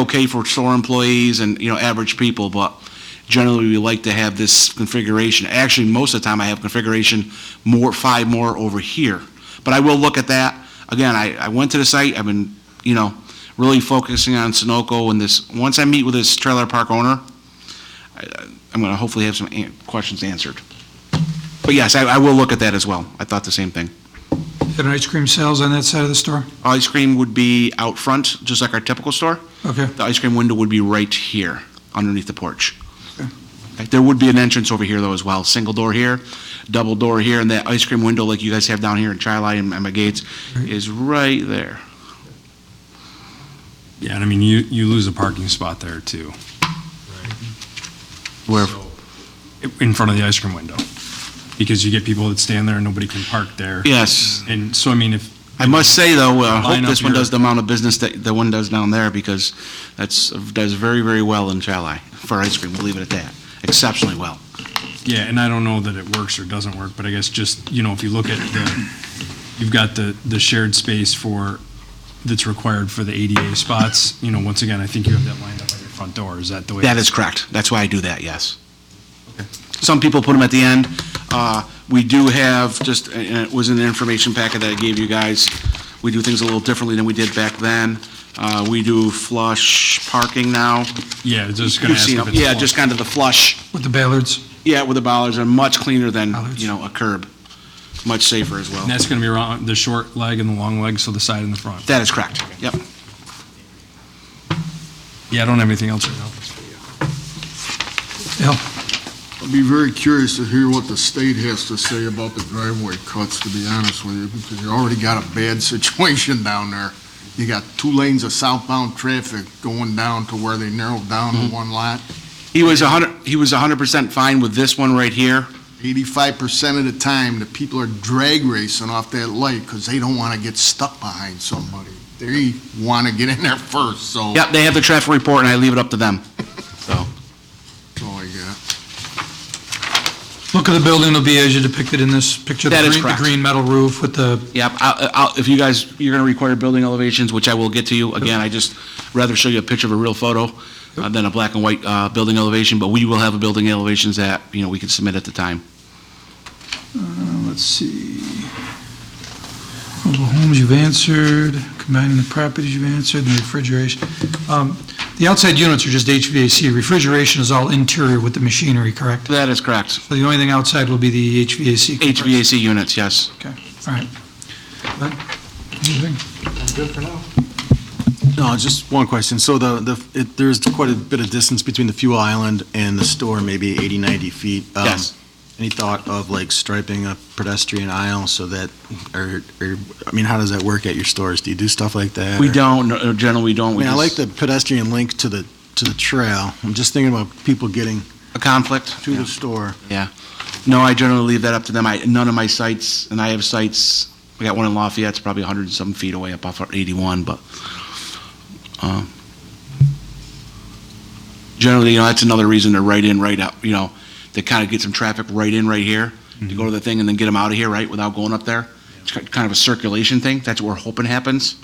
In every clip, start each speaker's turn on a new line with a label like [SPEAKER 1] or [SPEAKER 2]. [SPEAKER 1] okay for store employees and, you know, average people, but generally, we like to have this configuration. Actually, most of the time, I have configuration more, five more over here. But I will look at that. Again, I, I went to the site, I've been, you know, really focusing on Sunoco and this, once I meet with this trailer park owner, I- I'm gonna hopefully have some an- questions answered. But yes, I, I will look at that as well. I thought the same thing.
[SPEAKER 2] Is there ice cream sales on that side of the store?
[SPEAKER 1] Ice cream would be out front, just like our typical store.
[SPEAKER 2] Okay,
[SPEAKER 1] The ice cream window would be right here, underneath the porch. Okay, There would be an entrance over here though as well, single door here, double door here, and that ice cream window like you guys have down here in Chi-Li and and my Gates is right there.
[SPEAKER 3] Yeah, and I mean, you, you lose a parking spot there too.
[SPEAKER 1] Where,
[SPEAKER 3] So, In front of the ice cream window, because you get people that stand there and nobody can park there.
[SPEAKER 1] yes,
[SPEAKER 3] And so, I mean, if,
[SPEAKER 1] I must say though, uh, I hope
[SPEAKER 3] Line up
[SPEAKER 1] this one
[SPEAKER 3] here.
[SPEAKER 1] does the amount of business that the one does down there because that's, does very, very well in Chi-Li for ice cream, we'll leave it at that, exceptionally well.
[SPEAKER 3] yeah, and I don't know that it works or doesn't work, but I guess just, you know, if you look at the, you've got the, the shared space for, that's required for the ADA spots, you know, once again, I think you have that lined up at your front door. Is that the way?
[SPEAKER 1] That is correct. That's why I do that, yes. Some people put them at the end. Uh, We do have, just, and it was in the information packet that I gave you guys, we do things a little differently than we did back then. Uh, We do flush parking now.
[SPEAKER 3] Yeah, I was just gonna
[SPEAKER 1] You've
[SPEAKER 3] ask
[SPEAKER 1] seen
[SPEAKER 3] if
[SPEAKER 1] it.
[SPEAKER 3] it's.
[SPEAKER 1] Yeah, just kind of the flush,
[SPEAKER 2] with the Ballards.
[SPEAKER 1] yeah, where the bollards are much cleaner than,
[SPEAKER 2] Bollards.
[SPEAKER 1] you know, a curb. Much safer as well.
[SPEAKER 3] And that's gonna be around the short leg and the long leg, so the side and the front.
[SPEAKER 1] That is correct, yep.
[SPEAKER 3] Yeah, I don't have anything else right now.
[SPEAKER 2] Al,
[SPEAKER 4] I'd be very curious to hear what the state has to say about the driveway cuts, to be honest with you, because you already got a bad situation down there. You got two lanes of southbound traffic going down to where they narrowed down to one lot.
[SPEAKER 1] He was 100, he was 100% fine with this one right here.
[SPEAKER 4] Eighty-five percent of the time, the people are drag racing off that light because they don't want to get stuck behind somebody. They want to get in there first, so.
[SPEAKER 1] Yep, they have the traffic report, and I leave it up to them, so.
[SPEAKER 4] That's all I got.
[SPEAKER 2] look of the building will be as you depicted in this picture. the
[SPEAKER 1] That is
[SPEAKER 2] green-
[SPEAKER 1] correct.
[SPEAKER 2] The green metal roof with the,
[SPEAKER 1] Yep, I'll, I'll, if you guys, you're gonna require building elevations, which I will get to you, again, I just rather show you a picture of a real photo uh, than a black and white, uh, building elevation, but we will have a building elevations that, you know, we can submit at the time.
[SPEAKER 2] let's see. Mobile homes you've answered, combining the properties you've answered, and refrigeration. Um, The outside units are just HVAC. Refrigeration is all interior with the machinery, correct?
[SPEAKER 1] That is correct.
[SPEAKER 2] So the only thing outside will be the HVAC. compressor.
[SPEAKER 1] HVAC units, yes.
[SPEAKER 2] Okay, all right. Glenn, anything?
[SPEAKER 5] No, just one question. So the, the, it- there's quite a bit of distance between the fuel island and the store, maybe 80, 90 feet. Um,
[SPEAKER 1] Yes.
[SPEAKER 5] Any thought of like striping a pedestrian aisle so that, or, or, I mean, how does that work at your stores? Do you do stuff like that?
[SPEAKER 1] We
[SPEAKER 5] or-
[SPEAKER 1] don't, no, generally, we don't.
[SPEAKER 5] I
[SPEAKER 1] We
[SPEAKER 5] mean, I like
[SPEAKER 1] just-
[SPEAKER 5] the pedestrian link to the, to the trail. I'm just thinking about people getting
[SPEAKER 1] A conflict?
[SPEAKER 5] to the store.
[SPEAKER 1] No, I generally leave that up to them. I, none of my sites, and I have sites, I got one in Lafayette, it's probably 100 and some feet away up off of 81, but, um, generally, you know, that's another reason to right in, right out, you know, to kind of get some traffic right in, right here, to go to the thing and then get them out of here, right, without going up there. It's ki- kind of a circulation thing. That's what we're hoping happens,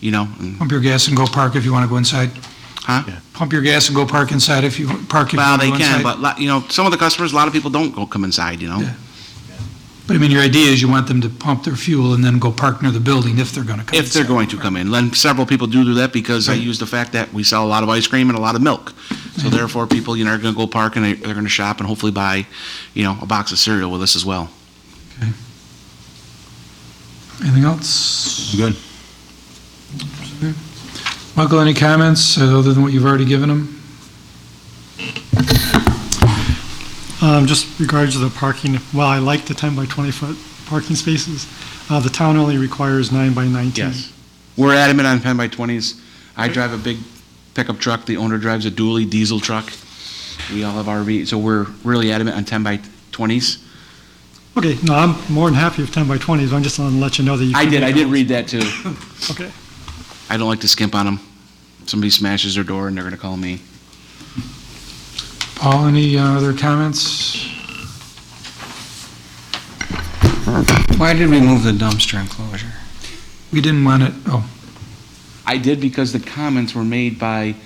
[SPEAKER 1] you know? and-
[SPEAKER 2] Pump your gas and go park if you want to go inside.
[SPEAKER 1] Huh?
[SPEAKER 5] Yeah.
[SPEAKER 2] Pump your gas and go park inside if you, park if you
[SPEAKER 1] Well,
[SPEAKER 2] want to
[SPEAKER 1] they
[SPEAKER 2] go inside.
[SPEAKER 1] can, but, lot- you know, some of the customers, a lot of people don't go, come inside, you know?
[SPEAKER 2] Yeah. But I mean, your idea is you want them to pump their fuel and then go park near the building if they're going to come.
[SPEAKER 1] If they're
[SPEAKER 2] inside.
[SPEAKER 1] going to come in. And several people do do that because I use the fact that we sell a lot of ice cream and a lot of milk. So therefore, people, you know, are going to go park and they- they're going to shop and hopefully buy, you know, a box of cereal with us as well.
[SPEAKER 2] Anything else?
[SPEAKER 5] Good.
[SPEAKER 2] Michael, any comments uh, other than what you've already given them?
[SPEAKER 6] Um, Just regards to the parking, well, I like the 10 by 20 foot parking spaces. Uh, The town only requires nine by 19.
[SPEAKER 1] We're adamant on 10 by 20s. I drive a big pickup truck. The owner drives a dually diesel truck. We all have RV, so we're really adamant on 10 by 20s.
[SPEAKER 6] Okay, no, I'm more than happy with 10 by 20s, I'm just wanting to let you know that you.
[SPEAKER 1] I
[SPEAKER 6] can
[SPEAKER 1] did, I
[SPEAKER 6] make
[SPEAKER 1] did
[SPEAKER 6] them.
[SPEAKER 1] read that too.
[SPEAKER 6] Okay.
[SPEAKER 1] I don't like to skimp on them. Somebody smashes their door and they're going to call me.
[SPEAKER 2] Paul, any uh, other comments?
[SPEAKER 7] Why did we move the dumpster enclosure?
[SPEAKER 2] We didn't want it, oh.
[SPEAKER 1] I did because the comments were made by